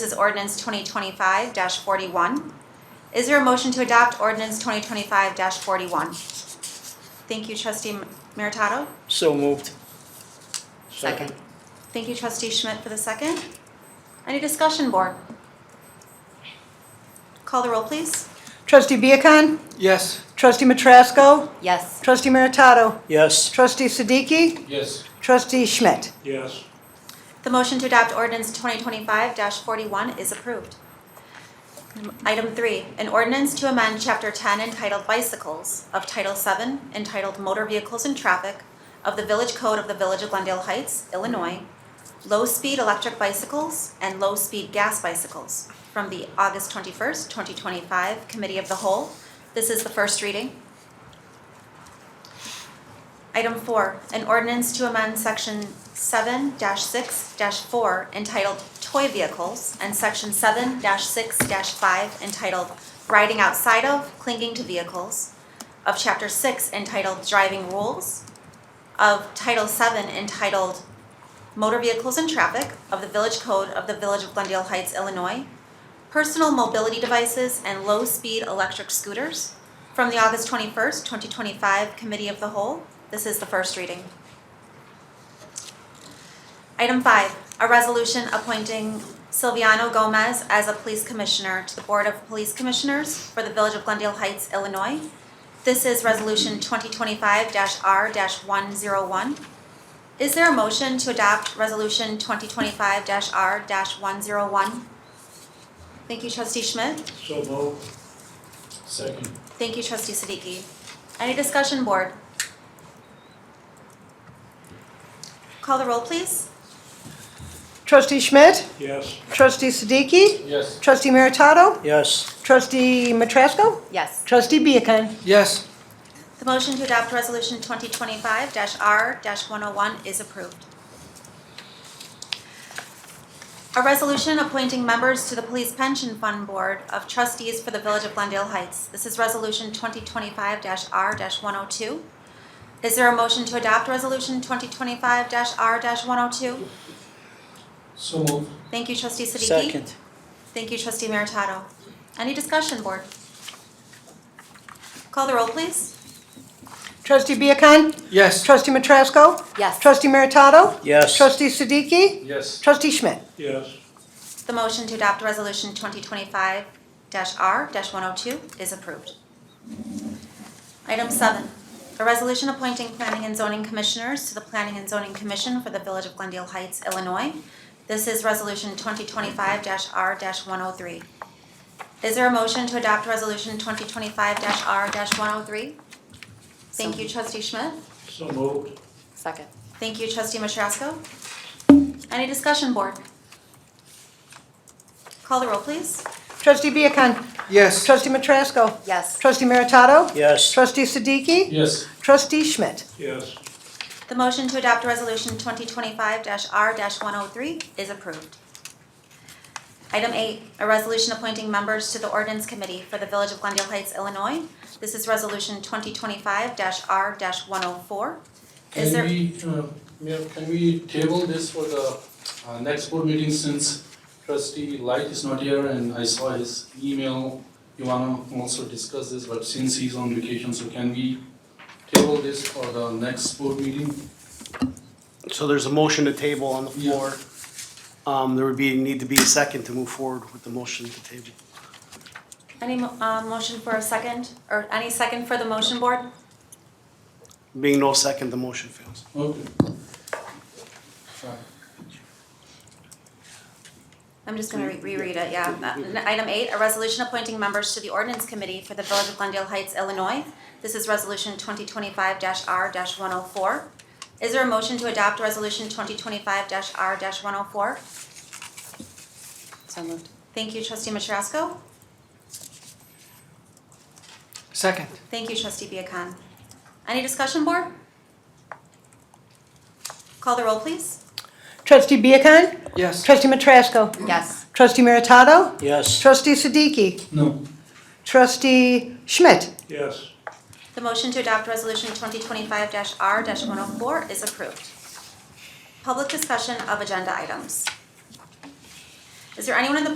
This is ordinance twenty twenty-five forty-one. Is there a motion to adopt ordinance twenty twenty-five forty-one? Thank you, trustee Meritato. So moved. Second. Thank you, trustee Schmidt for the second. Any discussion, board? Call the roll, please. Trustee Viacon. Yes. Trustee Matrasco. Yes. Trustee Meritato. Yes. Trustee Siddiqui. Yes. Trustee Schmidt. Yes. The motion to adopt ordinance twenty twenty-five forty-one is approved. Item three, an ordinance to amend chapter ten entitled bicycles of title VII, entitled motor vehicles and traffic of the village code of the village of Glendale Heights, Illinois, low-speed electric bicycles and low-speed gas bicycles from the August twenty-first, twenty twenty-five committee of the whole. This is the first reading. Item four, an ordinance to amend section seven six four entitled Toy Vehicles and section seven six five entitled Riding Outside of, Clinging to Vehicles of chapter six entitled Driving Rules of title seven entitled Motor Vehicles and Traffic of the Village Code of the Village of Glendale Heights, Illinois, personal mobility devices and low-speed electric scooters from the August 21st, 2025 Committee of the Whole. This is the first reading. Item 5, a resolution appointing Silviano Gomez as a police commissioner to the Board of Police Commissioners for the Village of Glendale Heights, Illinois. This is Resolution 2025-R-101. Is there a motion to adopt Resolution 2025-R-101? Thank you, trustee Schmidt. So moved. Second. Thank you, trustee Siddiqui. Any discussion, board? Call the roll, please. Trustee Schmidt. Yes. Trustee Siddiqui. Yes. Trustee Meritato. Yes. Trustee Matrasco. Yes. Trustee Viacon. Yes. The motion to adopt resolution twenty twenty-five R one oh one is approved. A resolution appointing members to the Police Pension Fund Board of Trustees for the Village of Glendale Heights. This is resolution twenty twenty-five R one oh two. Is there a motion to adopt resolution twenty twenty-five R one oh two? So moved. Thank you, trustee Siddiqui. Second. Thank you, trustee Meritato. Any discussion, board? Call the roll, please. Trustee Viacon. Yes. Trustee Matrasco. Yes. Trustee Meritato. Yes. Trustee Siddiqui. Yes. Trustee Schmidt. Yes. The motion to adopt Resolution 2025-R-102 is approved. Item seven, a resolution appointing planning and zoning commissioners to the Planning and Zoning Commission for the Village of Glendale Heights, Illinois. This is Resolution 2025-R-103. Is there a motion to adopt Resolution 2025-R-103? Thank you, trustee Schmidt. So moved. Second. Thank you, trustee Matrasco. Any discussion, board? Call the roll, please. Trustee Viacon. Yes. Trustee Matrasco. Yes. Trustee Meritato. Yes. Trustee Siddiqui. Yes. Trustee Schmidt. Yes. The motion to adopt Resolution 2025-R-103 is approved. Item eight, a resolution appointing members to the ordinance committee for the Village of Glendale Heights, Illinois. This is Resolution 2025-R-104. Is there, Can we, uh, Mayor, can we table this for the uh, next board meeting since trustee Light is not here and I saw his email. You wanna also discuss this, but since he's on vacation, so can we table this for the next board meeting? So there's a motion to table on the Yeah. floor. Um, there would be, need to be a second to move forward with the motion to table. any mo- uh, motion for a second, or any second for the motion, board? Being no second, the motion fails. Okay. Uh, Fine. I'm just gonna re- reread it, yeah. Uh, Item eight, a resolution appointing members to the ordinance committee for the Village of Glendale Heights, Illinois. This is resolution twenty twenty-five R one oh four. Is there a motion to adopt resolution twenty twenty-five R one oh four? So moved. Thank you, trustee Matrasco. Second. Thank you, trustee Viacon. Any discussion, board? Call the roll, please. Trustee Viacon. Yes. Trustee Matrasco. Yes. Trustee Meritato. Yes. Trustee Siddiqui. No, Trustee Schmidt. Yes. The motion to adopt resolution twenty twenty-five R one oh four is approved. Public discussion of agenda items. Is there anyone in the